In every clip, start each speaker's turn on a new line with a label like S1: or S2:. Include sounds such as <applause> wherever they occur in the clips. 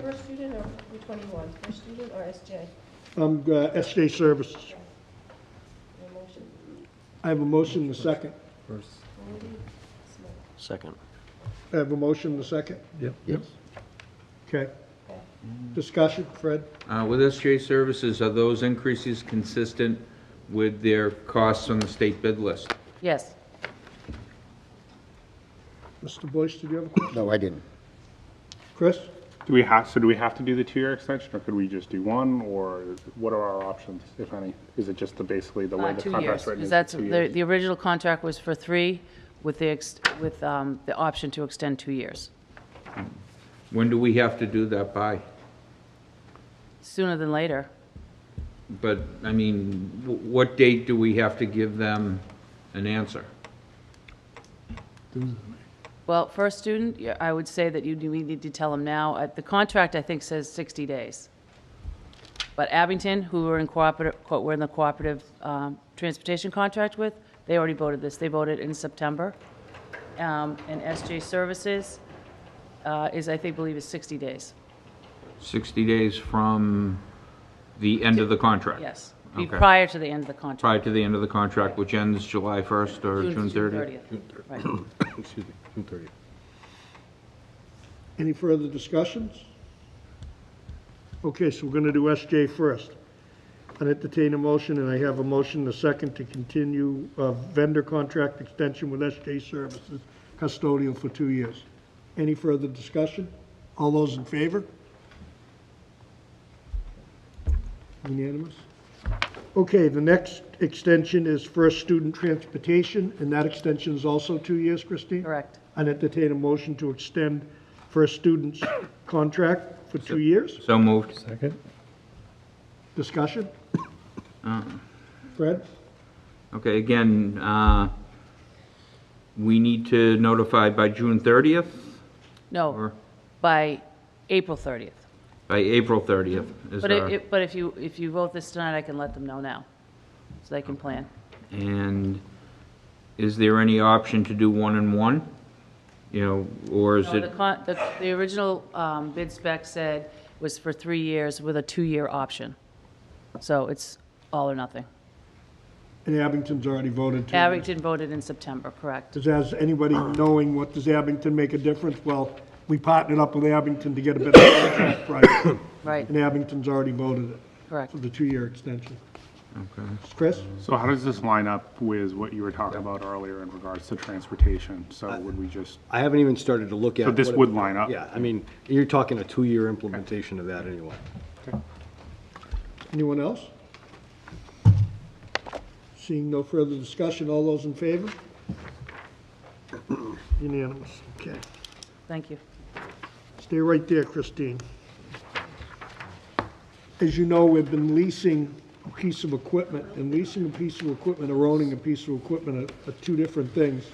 S1: per student or Route 21? Per student or SJ?
S2: I'm uh, SJ Services.
S1: No motion.
S2: I have a motion and a second.
S3: First.
S1: Moody, Smith.
S4: Second.
S2: I have a motion and a second.
S3: Yep.
S4: Yes.
S2: Okay. Discussion, Fred?
S5: Uh, With SJ Services, are those increases consistent with their costs on the state bid list?
S6: Yes.
S2: Mr. Boyce, did you have a question?
S4: No, I didn't.
S2: Chris?
S7: Do we have, so do we have to do the two-year extension, or could we just do one, or what are our options, if any? Is it just the, basically the way
S6: Uh,
S7: the
S6: Two
S7: contract's
S6: years.
S7: written?
S6: Because
S7: is
S6: that's,
S7: two
S6: the,
S7: years?
S6: the original contract was for three with the, ex- with um, the option to extend two years,
S5: When do we have to do that by?
S6: sooner than later.
S5: But, I mean, wh- what date do we have to give them an answer?
S6: Well, for a student, yeah, I would say that you, do- we need to tell them now. Uh, The contract, I think, says 60 days. But Abington, who we're in cooperative, co- we're in the cooperative um, transportation contract with, they already voted this. They voted in September. Um, And SJ Services uh, is, I think, believe is 60 days.
S5: 60 days from the end of the contract?
S6: Yes. Be
S5: Okay.
S6: Prior to the end of the contract.
S5: Prior to the end of the contract, which ends July 1st or June 30th?
S6: Right.
S3: Excuse me, June thirtieth.
S2: Any further discussions? Okay, so we're going to do SJ first. I entertain a motion, and I have a motion, and a second, to continue uh, vendor contract extension with SJ Services custodial for two years. Any further discussion? All those in favor? Unanimous? Okay, the next extension is First Student Transportation, and that extension is also two years, Christine?
S6: Correct.
S2: I entertain a motion to extend for a student's contract for two years.
S5: So moved.
S3: Second?
S2: Discussion? Fred?
S5: Okay, again, uh, we need to notify by June 30th
S6: No,
S5: or
S6: by April 30th.
S5: by April 30th? is
S6: But
S5: our-
S6: if- if, but if you, if you vote this tonight, I can let them know now, so they can plan.
S5: And is there any option to do one and one? You know, or is
S6: No, The,
S5: it,
S6: con- the, the original um, bid spec said was for three years with a two-year option. So it's all or nothing.
S2: And Abington's already voted two years.
S6: Abington voted in September, correct?
S2: Does, has anybody knowing what, does Abington make a difference? Well, we partnered up with Abington to get a better contract price,
S6: Right,
S2: and Abington's already voted it
S6: correct.
S2: for the two-year extension.
S5: okay.
S2: Chris?
S7: So how does this line up with what you were talking about earlier in regards to transportation? So would we just,
S3: I haven't even started to look at.
S7: So this
S3: what it-
S7: would line up?
S3: Yeah, I mean, you're talking a two-year implementation of that anyway.
S2: Anyone else? Seeing no further discussion, all those in favor? Unanimous, okay.
S6: Thank you.
S2: Stay right there, Christine. As you know, we've been leasing a piece of equipment, and leasing a piece of equipment or owning a piece of equipment are, are two different things.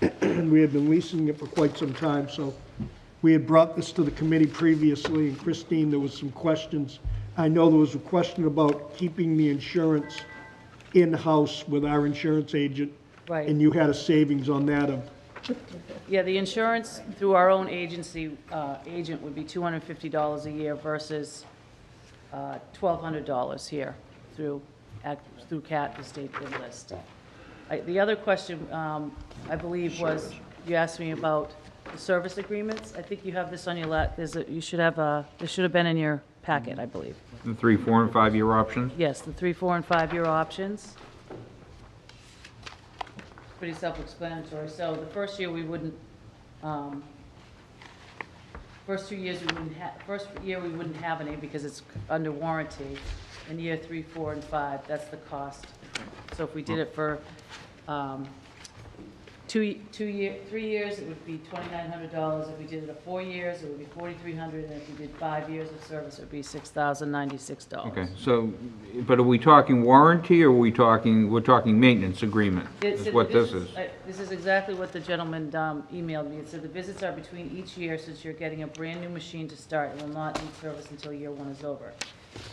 S2: <clears throat> And we had been leasing it for quite some time, so we had brought this to the committee previously, and Christine, there was some questions. I know there was a question about keeping the insurance in-house with our insurance agent.
S6: Right.
S2: And you had a savings on that of
S6: Yeah, the insurance through our own agency, uh, agent would be $250 a year versus uh, $1,200 here through, act- through CAT, the state bid list. I- The other question, um, I believe, was, you asked me about the service agreements. I think you have this on your lap, there's, a- you should have, a- this should have been in your packet, I believe.
S5: The three, four, and five-year options?
S6: Yes, the three, four, and five-year options. Pretty self-explanatory. So the first year, we wouldn't, um, first two years, we wouldn't have, first year, we wouldn't have any because it's under warranty. In year three, four, and five, that's the cost. So if we did it for, um, two, two year, three years, it would be twenty-nine hundred dollars. If we did it at four years, it would be forty-three hundred, and if we did five years of service, it would be six thousand ninety-six dollars.
S5: Okay, so, but are we talking warranty or are we talking, we're talking maintenance agreement?
S6: It
S5: Is
S6: said
S5: what
S6: the
S5: this is.
S6: visits- I- This is exactly what the gentleman um, emailed me. It said the visits are between each year since you're getting a brand-new machine to start and will not need service until year one is over.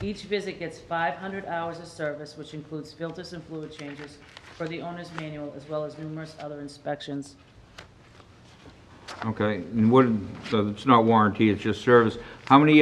S6: Each visit gets 500 hours of service, which includes filters and fluid changes for the owner's manual, as well as numerous other inspections.
S5: Okay, and what, so it's not warranty, it's just service. How many